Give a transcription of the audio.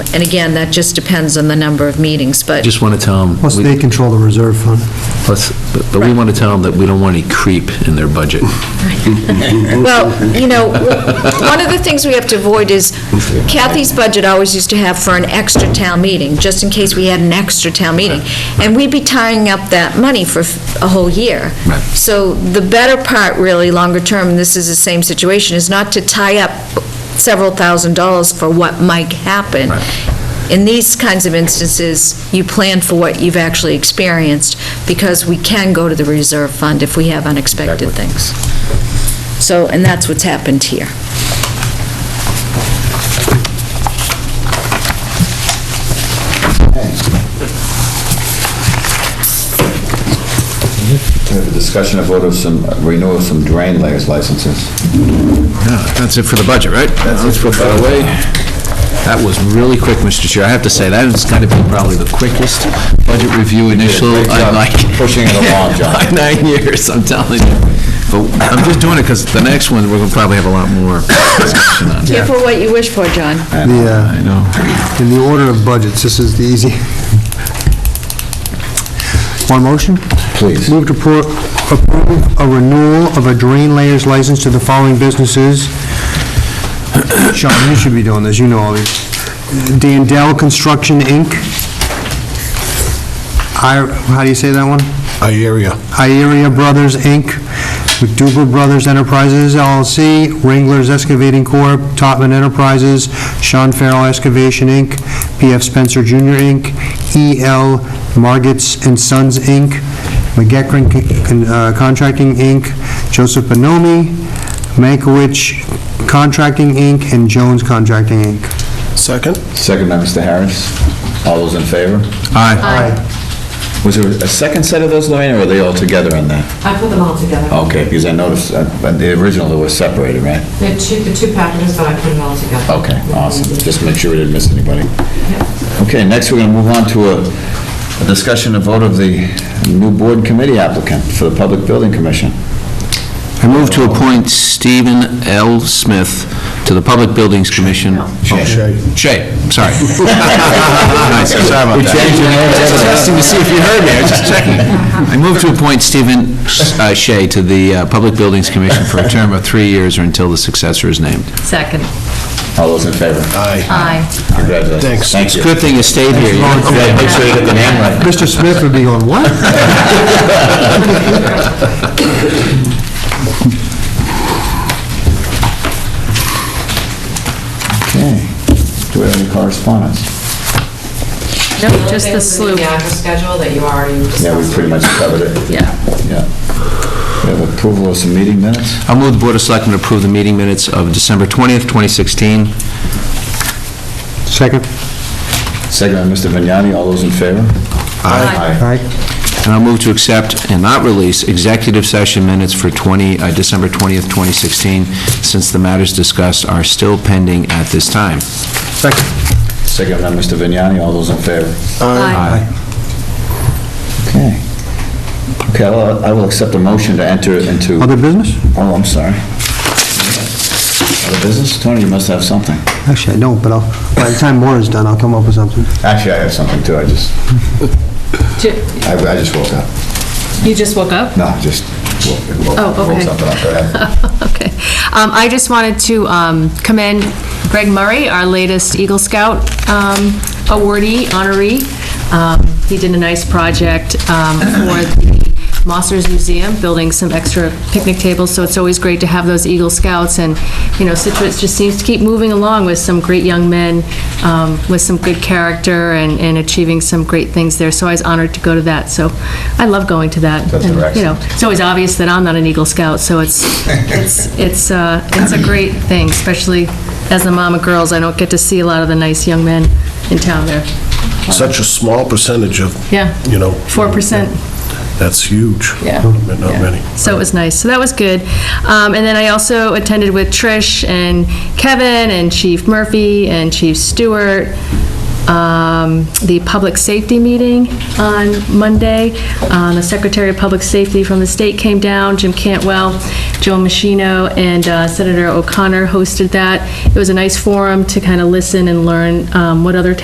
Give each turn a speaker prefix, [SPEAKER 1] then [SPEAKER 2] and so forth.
[SPEAKER 1] And again, that just depends on the number of meetings, but,
[SPEAKER 2] Just want to tell them,
[SPEAKER 3] Plus, they control the reserve fund.
[SPEAKER 2] plus, but- but we want to tell them that we don't want any creep in their budget.
[SPEAKER 1] well, you know, one of the things we have to avoid is Kathy's budget always used to have for an extra town meeting, just in case we had an extra town meeting. And we'd be tying up that money for a whole year.
[SPEAKER 2] Right.
[SPEAKER 1] So the better part, really, longer term, and this is the same situation, is not to tie up several thousand dollars for what might happen.
[SPEAKER 2] Right.
[SPEAKER 1] In these kinds of instances, you plan for what you've actually experienced, because we can go to the reserve fund if we have unexpected things. So, and that's what's happened here.
[SPEAKER 4] We have a discussion of vote of some, renewal of some drain layers licenses.
[SPEAKER 2] That's it for the budget, right? Let's put that away. That was really quick, Mr. Chair. I have to say, that has got to be probably the quickest budget review initial
[SPEAKER 4] great
[SPEAKER 2] i
[SPEAKER 4] job
[SPEAKER 2] like.
[SPEAKER 4] pushing it along, John.
[SPEAKER 2] Like Nine years, I'm telling you. But I'm just doing it because the next one, we're going to probably have a lot more discussion on.
[SPEAKER 1] Careful what you wish for, John.
[SPEAKER 3] The,
[SPEAKER 2] I know.
[SPEAKER 3] uh, In the order of budgets, this is the easy. One motion?
[SPEAKER 4] Please.
[SPEAKER 3] Move to appro- approve a renewal of a drain layers license to the following businesses. Sean, you should be doing this, you know all these. Dandel Construction, Inc. I, how do you say that one?
[SPEAKER 5] Area.
[SPEAKER 3] Ieria Brothers, Inc., McDougal Brothers Enterprises LLC, Ringler's Excavating Corp., Topman Enterprises, Sean Farrell Excavation, Inc., PF Spencer Jr., Inc., E.L. Margits and Sons, Inc., McGeckran Con- uh, Contracting, Inc., Joseph Bonomi, Mankiewicz Contracting, Inc., and Jones Contracting, Inc.
[SPEAKER 5] Second?
[SPEAKER 4] Second by Mr. Harris. All those in favor?
[SPEAKER 2] Aye.
[SPEAKER 4] Was there a second set of those, Lorraine, or were they all together on that?
[SPEAKER 6] I put them all together.
[SPEAKER 4] Okay, because I noticed, uh, but the original that was separated, right?
[SPEAKER 6] They're two, the two packages, but I put them all together.
[SPEAKER 4] Okay, awesome. Just make sure we didn't miss anybody. Okay, next we're going to move on to a- a discussion of vote of the new board committee applicant for the Public Building Commission.
[SPEAKER 2] I move to appoint Stephen L. Smith to the Public Buildings Commission.
[SPEAKER 5] Shay.
[SPEAKER 2] Shay, sorry. Sorry about that. Just testing to see if you heard me, I was just checking. I move to appoint Stephen uh, Shay to the uh, Public Buildings Commission for a term of three years or until the successor is named.
[SPEAKER 1] Second.
[SPEAKER 4] All those in favor?
[SPEAKER 5] Aye.
[SPEAKER 1] Aye.
[SPEAKER 4] Congratulations.
[SPEAKER 5] Thanks.
[SPEAKER 4] Thank you.
[SPEAKER 2] Good thing you stayed here. You don't
[SPEAKER 4] Yeah, Make sure you get the name right.
[SPEAKER 3] Mr. Smith would be going, what?
[SPEAKER 4] Okay. Do we have any correspondence?
[SPEAKER 1] No,
[SPEAKER 6] Those things in The actual schedule that you already discussed.
[SPEAKER 4] Yeah, we pretty much covered it.
[SPEAKER 1] Yeah.
[SPEAKER 4] Yeah. We have approval of some meeting minutes.
[SPEAKER 2] I'll move the Board of Selectmen to approve the meeting minutes of December 20th, 2016.
[SPEAKER 3] Second.
[SPEAKER 4] Second by Mr. Vignani, all those in favor? Aye.
[SPEAKER 3] Aye.
[SPEAKER 2] And I'll move to accept and not release executive session minutes for 20, uh, December 20th, 2016, since the matters discussed are still pending at this time.
[SPEAKER 3] Second.
[SPEAKER 4] Second by Mr. Vignani, all those in favor? Okay. Okay, I'll- I will accept a motion to enter into,
[SPEAKER 3] Other business?
[SPEAKER 4] oh, I'm sorry. Other business? Tony, you must have something.
[SPEAKER 3] Actually, I don't, but I'll, by the time more is done, I'll come up with something.
[SPEAKER 4] Actually, I have something too, I just, I I just woke up.
[SPEAKER 7] You just woke up?
[SPEAKER 4] No, just woke woke-
[SPEAKER 7] Oh,
[SPEAKER 4] woke
[SPEAKER 7] okay.
[SPEAKER 4] something up. Go ahead.
[SPEAKER 7] Okay. Um, I just wanted to um, commend Greg Murray, our latest Eagle Scout um, awardee, honoree. Um, He did a nice project um, for the Mossers Museum, building some extra picnic tables, so it's always great to have those Eagle Scouts, and, you know, Situate just seems to keep moving along with some great young men, um, with some good character, and and achieving some great things there, so I was honored to go to that, so I love going to that.
[SPEAKER 4] That's
[SPEAKER 7] And,
[SPEAKER 4] excellent.
[SPEAKER 7] You know, it's always obvious that I'm not an Eagle Scout, so it's, it's, it's, uh, it's a great thing, especially as the mom of girls, I don't get to see a lot of the nice young men in town there.
[SPEAKER 5] Such a small percentage of,
[SPEAKER 7] Yeah.
[SPEAKER 5] you know.
[SPEAKER 7] 4%.
[SPEAKER 5] That's huge.
[SPEAKER 7] Yeah.
[SPEAKER 5] But Not many.
[SPEAKER 7] So it was nice. So that was good. Um, and then I also attended with Trish and Kevin and Chief Murphy and Chief Stewart, um, the public safety meeting on Monday. Uh, the Secretary of Public Safety from the state came down, Jim Cantwell, Joe Machino, and uh, Senator O'Connor hosted that. It was a nice forum to kind of listen and learn um, what other